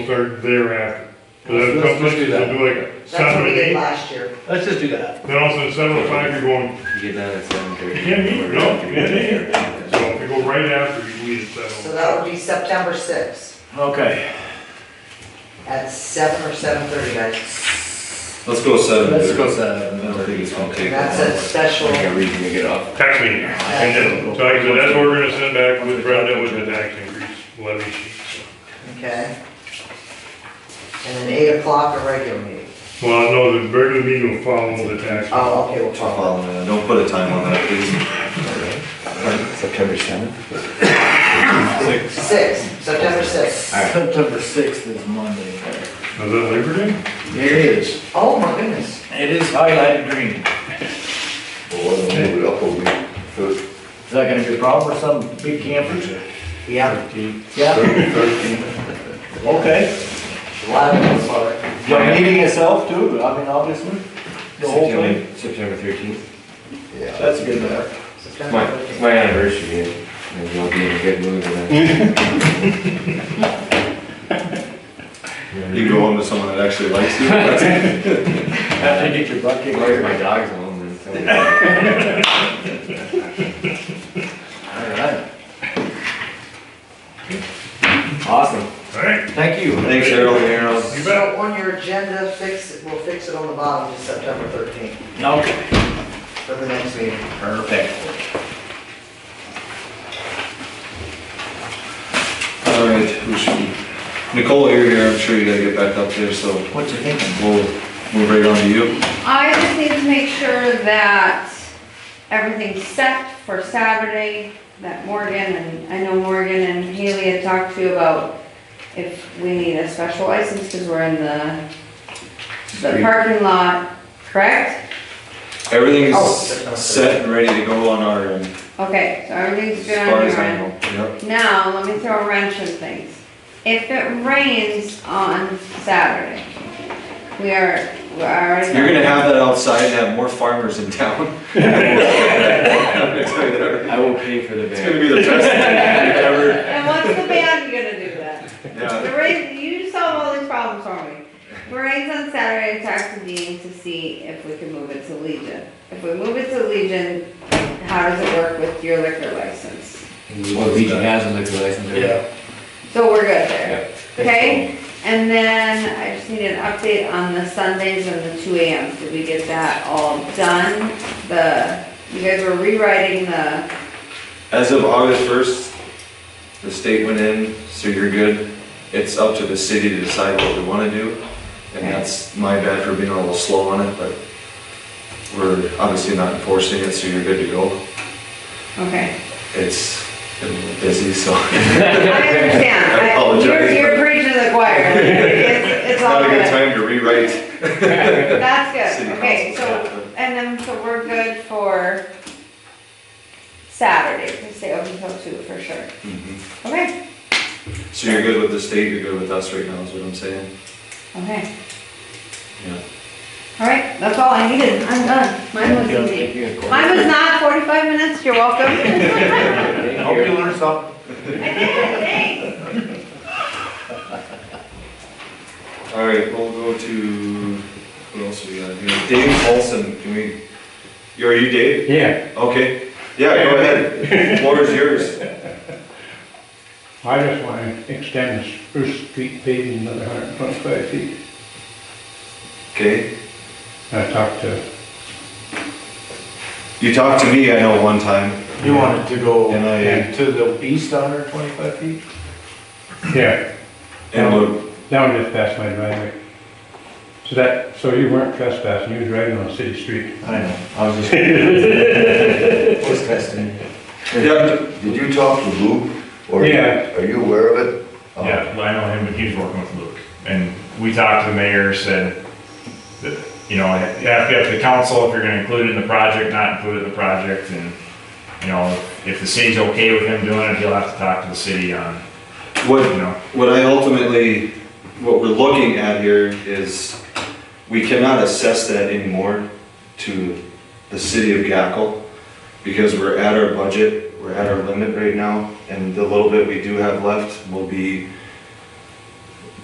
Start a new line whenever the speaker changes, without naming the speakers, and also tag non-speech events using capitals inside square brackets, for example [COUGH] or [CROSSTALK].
start thereafter. Because
Let's-
that's
let's do
something,
that.
they'll do like
That's
seven
what
to
we did
eight,
last year.
Let's just do that.
then also at seven to five, you're going,
You get done at seven
you
thirty.
can't eat, no, you can't eat. So if you go right after, you leave at
So
seven.
that would be September sixth
Okay.
at seven or seven thirty, guys.
Let's go seven.
Let's
dude.
go
I
seven.
don't think it's gonna take.
That's
that
a
long.
special,
Like a reason to get off.
Tax meeting, and then, so I said, that's what we're gonna send back with Brenda with the tax increase levy sheet.
okay? And then eight o'clock, a regular meeting.
so. Well, no, the regular meeting will follow the tax.
Oh, okay, we'll
I'll
talk.
follow that. Um, Don't put a time on that, please.
September seventh?
Six, September sixth.
September sixth is Monday.
Is that Labor Day?
It is.
Oh, my goodness.
It is highlighted green. Is that gonna be a problem for some big campers?
Yeah,
Yeah, okay.
a lot of people saw it.
The meeting itself too, I mean, obviously, the whole thing.
September thirteenth.
That's a good number.
My,
September
it's
fifteenth.
my anniversary, and maybe I'll be in a good mood
Mm.
You
tonight.
go on to someone that actually likes you. That's
After you get your butt kicked.
Where's my dog's home and tell me.
Alright. Awesome.
All right,
Thank you.
Thanks, Harold and Harold.
you bet.
So on your agenda, fix, it. we'll fix it on the bottom to September thirteenth
Okay.
for the next meeting.
Perfect.
All right, we should, Nicole, you're here, I'm sure you gotta get back up there, so
What you thinking?
we'll move right on to you.
I just need to make sure that everything's set for Saturday, that Morgan, and I know Morgan and Haley had talked to you about if we need a special license, because we're in the, the parking lot, correct?
Everything
Oh,
is
September
set and ready to go on our, end,
Okay, so everything's
as
good on
far as
your
I
end.
know. Yep.
Now, let me throw a wrench in things. If it rains on Saturday, we are, we're already.
You're gonna have that outside and have more farmers in town. [LAUGHS] It's
I will pay for the
gonna
van.
be the best
And what's the band gonna do then?
thing ever.
The rain, you solve all these problems for me. The rain's on Saturday, I talked to Dean to see if we can move it to Legion. If we move it to Legion, how does it work with your liquor license?
Well, Legion has a liquor license. right?
Yeah.
So we're good there, okay? And then I just need an update on the Sundays and the two AM. Did we get that all done? The, you guys were rewriting the,
As of August first, the state went in, so you're good. It's up to the city to decide what we wanna do. And that's my bad for being a little slow on it, but we're obviously not enforcing it, so you're good to go.
okay.
It's been busy, so. [LAUGHS]
I understand.
I apologize.
You're, you're preaching to the choir. It's, it's all
Not a
good.
good time to rewrite.
That's
City
good, okay, so,
council, yeah.
and then, so we're good for Saturday, we stay open till two for sure,
Mm-hmm.
okay,
So you're good with the state, you're good with us right now, is what I'm saying?
okay,
Yeah.
all right, that's all I needed, I'm done, mine was easy.
Thank you.
Mine was not forty-five minutes, you're welcome. [LAUGHS]
Hope you learned something.
Thanks.
All right, we'll go to, what else we got here? Dave Paulson, can we, you- are you Dave?
Yeah,
Okay, yeah, go ahead. Floor is yours.
I just want to extend this Spruce Street paving another hundred and twenty-five feet.
Okay,
I talked to,
you talked to me, I know, one time,
You wanted to go
And I-
to the east hundred twenty-five feet?
yeah,
and what-
down just past my driveway. So that, so you weren't trespassing, you was driving on a city street.
I know, I was [LAUGHS] just. [LAUGHS]
Just testing.
yeah,
Did you talk to Luke? Or
Yeah.
Are you aware of it? Oh,
Yeah, well, I know him, but he's working with Luke. And we talked to the mayor, said that, you know, you have to have the council, if you're gonna include it in the project, not include it in the project, and, you know, if the city's okay with him doing it, he'll have to talk to the city on,
what,
you know.
what I ultimately, what we're looking at here is, we cannot assess that anymore to the city of Gackle, because we're at our budget, we're at our limit right now, and the little bit we do have left will be